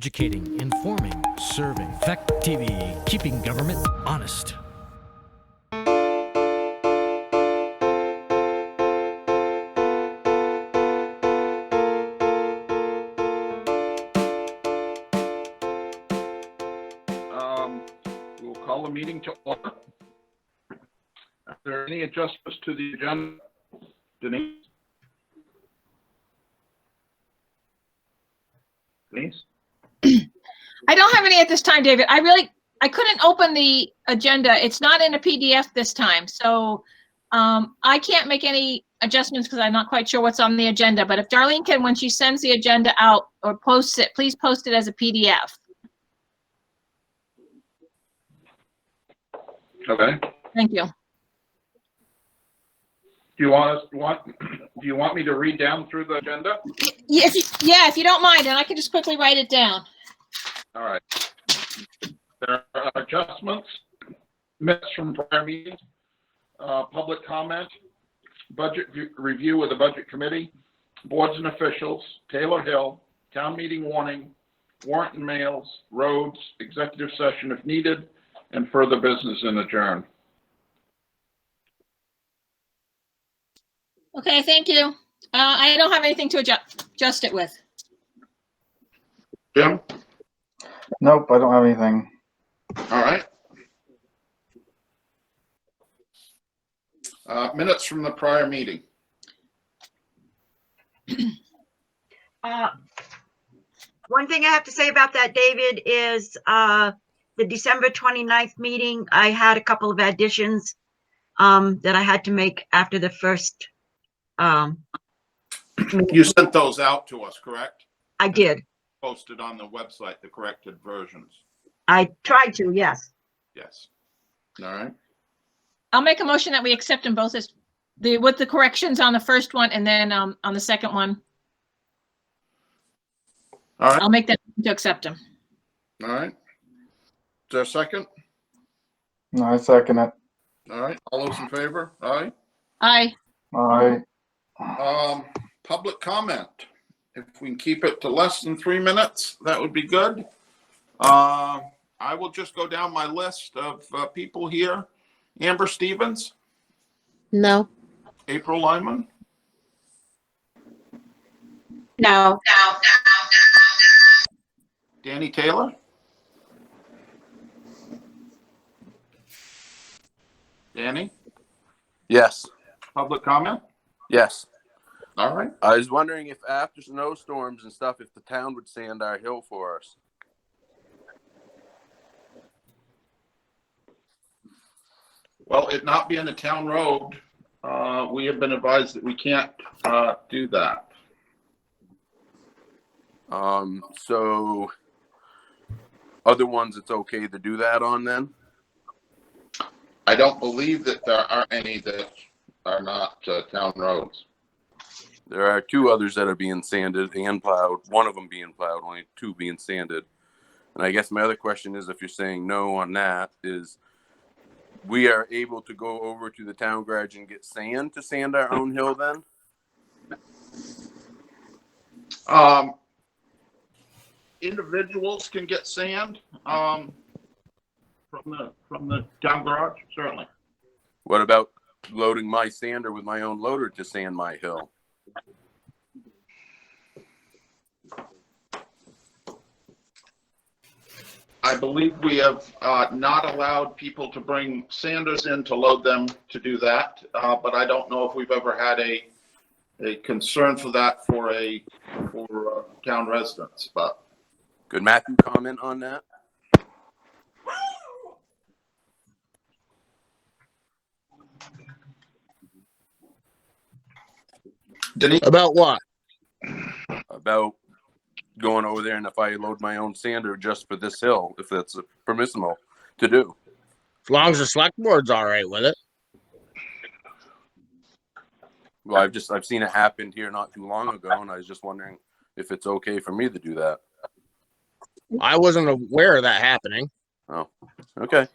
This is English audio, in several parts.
Educating, informing, serving. Fact TV, keeping government honest. Um, We'll call the meeting to order. Are there any adjustments to the agenda? Denise? Denise? I don't have any at this time, David. I really, I couldn't open the agenda. It's not in a PDF this time, so um, I can't make any adjustments because I'm not quite sure what's on the agenda. But if Darlene can, when she sends the agenda out or posts it, please post it as a PDF. Okay. Thank you. Do you want us, want, do you want me to read down through the agenda? Yeah, if you, yeah, if you don't mind, and I can just quickly write it down. All right. There are adjustments, minutes from prior meetings, uh, public comment, budget view- review with the budget committee, boards and officials, Taylor Hill, town meeting warning, warrant and mails, roads, executive session if needed, and further business in adjourn. Okay, thank you. Uh, I don't have anything to adjust, adjust it with. Jim, Nope, I don't have anything. all right. Uh, minutes from the prior meeting. Uh, One thing I have to say about that, David, is uh, the December 29th meeting, I had a couple of additions um, that I had to make after the first, um, You sent those out to us, correct? I did. posted on the website, the corrected versions. I tried to, yes. Yes. All right. I'll make a motion that we accept them both as, the, with the corrections on the first one and then um, on the second one. All right. I'll make that to accept them. All right. Is there a second? No, I second it. All right. All those in favor? Aye. Aye. I, Um, public comment. If we can keep it to less than three minutes, that would be good. Um, I will just go down my list of uh, people here. Amber Stevens, No. April Lyman, No. Danny Taylor. Danny, Yes, public comment? yes. All right. I was wondering if after snowstorms and stuff, if the town would sand our hill for us. Well, it not being a town road, uh, we have been advised that we can't, uh, do that. Um, so other ones, it's okay to do that on then? I don't believe that there are any that are not, uh, town roads. There are two others that are being sanded and plowed, one of them being plowed, only two being sanded. And I guess my other question is if you're saying no on that is we are able to go over to the town garage and get sand to sand our own hill then? Um, individuals can get sand, um, from the, from the town garage, certainly. What about loading my sander with my own loader to sand my hill? I believe we have, uh, not allowed people to bring sanders in to load them to do that, uh, but I don't know if we've ever had a, a concern for that for a, for, uh, town residents, but Could Matthew comment on that? Denise, About what? about going over there and if I load my own sander just for this hill, if that's permissible to do. As long as the select board's all right with it. Well, I've just I've seen it happen here not too long ago, and I was just wondering if it's okay for me to do that. I wasn't aware of that happening. Okay,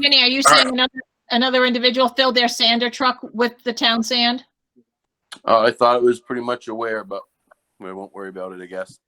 Danny, are you saying another, another individual filled their sander truck with the town sand? uh, I thought it was pretty much aware, but we won't worry about it. I guess